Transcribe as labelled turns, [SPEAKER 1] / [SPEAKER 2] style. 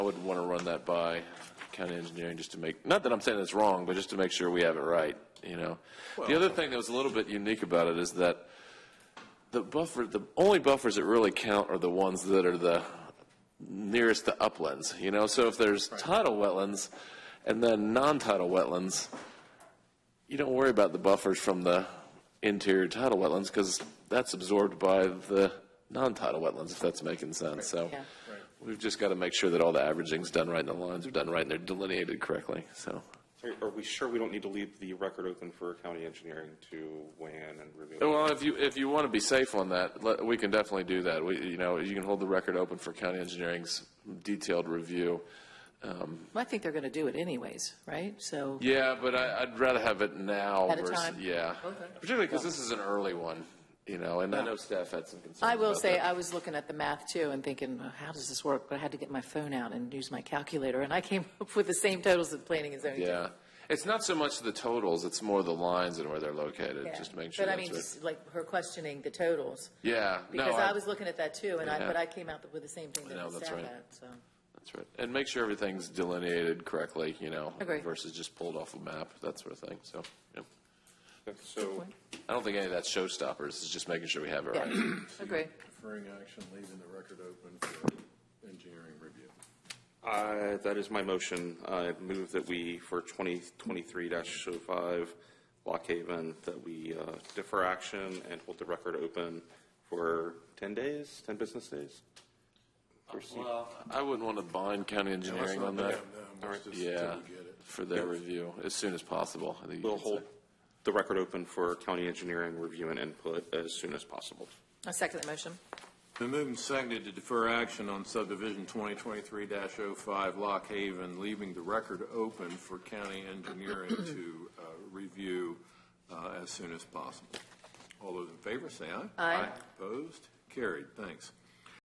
[SPEAKER 1] would want to run that by county engineering just to make, not that I'm saying it's wrong, but just to make sure we have it right, you know? The other thing that was a little bit unique about it is that the buffer, the only buffers that really count are the ones that are the nearest to uplands, you know? So if there's tidal wetlands and then non-tidal wetlands, you don't worry about the buffers from the interior tidal wetlands because that's absorbed by the non-tidal wetlands, if that's making sense. So
[SPEAKER 2] Yeah.
[SPEAKER 1] we've just got to make sure that all the averaging's done right and the lines are done right and they're delineated correctly, so.
[SPEAKER 3] Are- Are we sure we don't need to leave the record open for county engineering to weigh in and review?
[SPEAKER 1] Well, if you, if you want to be safe on that, let- we can definitely do that. We, you know, you can hold the record open for county engineering's detailed review.
[SPEAKER 2] Well, I think they're going to do it anyways, right? So,
[SPEAKER 1] Yeah, but I, I'd rather have it now
[SPEAKER 2] At a
[SPEAKER 1] versus,
[SPEAKER 2] time.
[SPEAKER 1] yeah.
[SPEAKER 2] Okay.
[SPEAKER 1] Particularly because this is an early one, you know, and I know staff had some concerns
[SPEAKER 2] I will
[SPEAKER 1] about
[SPEAKER 2] say,
[SPEAKER 1] that.
[SPEAKER 2] I was looking at the math too and thinking, "Well, how does this work? But I had to get my phone out and use my calculator, and I came up with the same totals that planning and zoning. did.
[SPEAKER 1] Yeah. It's not so much the totals, it's more the lines and where they're located,
[SPEAKER 2] Yeah.
[SPEAKER 1] just to make sure
[SPEAKER 2] But I
[SPEAKER 1] that's
[SPEAKER 2] mean,
[SPEAKER 1] right.
[SPEAKER 2] just like her questioning the totals,
[SPEAKER 1] Yeah, no,
[SPEAKER 2] because I
[SPEAKER 1] I-
[SPEAKER 2] was looking at that too, and I,
[SPEAKER 1] Yeah.
[SPEAKER 2] but I came out with the same thing that
[SPEAKER 1] know,
[SPEAKER 2] the
[SPEAKER 1] that's
[SPEAKER 2] staff
[SPEAKER 1] right.
[SPEAKER 2] had, so.
[SPEAKER 1] that's right. And make sure everything's delineated correctly, you know,
[SPEAKER 2] Agree.
[SPEAKER 1] versus just pulled off a map, that sort of thing, so, yeah.
[SPEAKER 3] So,
[SPEAKER 1] I don't think any of that's showstoppers, it's just making sure we have it
[SPEAKER 2] Yeah.
[SPEAKER 1] right.
[SPEAKER 2] Agree.
[SPEAKER 4] Deferring action, leaving the record open for engineering review.
[SPEAKER 3] I- uh, that is my motion. I move that we, for 2023-05 Lock oh Haven, that we uh, defer action and hold the record open for 10 days, 10 business days? For C-
[SPEAKER 1] I wouldn't want to bind county engineering on that,
[SPEAKER 4] No, let's just, till we
[SPEAKER 1] yeah,
[SPEAKER 4] get it.
[SPEAKER 1] for their review, as soon as possible. I think you
[SPEAKER 3] We'll
[SPEAKER 1] could say.
[SPEAKER 3] hold the record open for county engineering review and input as soon as possible.
[SPEAKER 2] I second the motion.
[SPEAKER 4] Been moved and seconded to defer action on subdivision 2023-05 Lock Haven, leaving the record open for county engineering to uh, review uh, as soon as possible. All those in favor, say aye.
[SPEAKER 2] Aye.
[SPEAKER 4] Opposed? Carried. Thanks.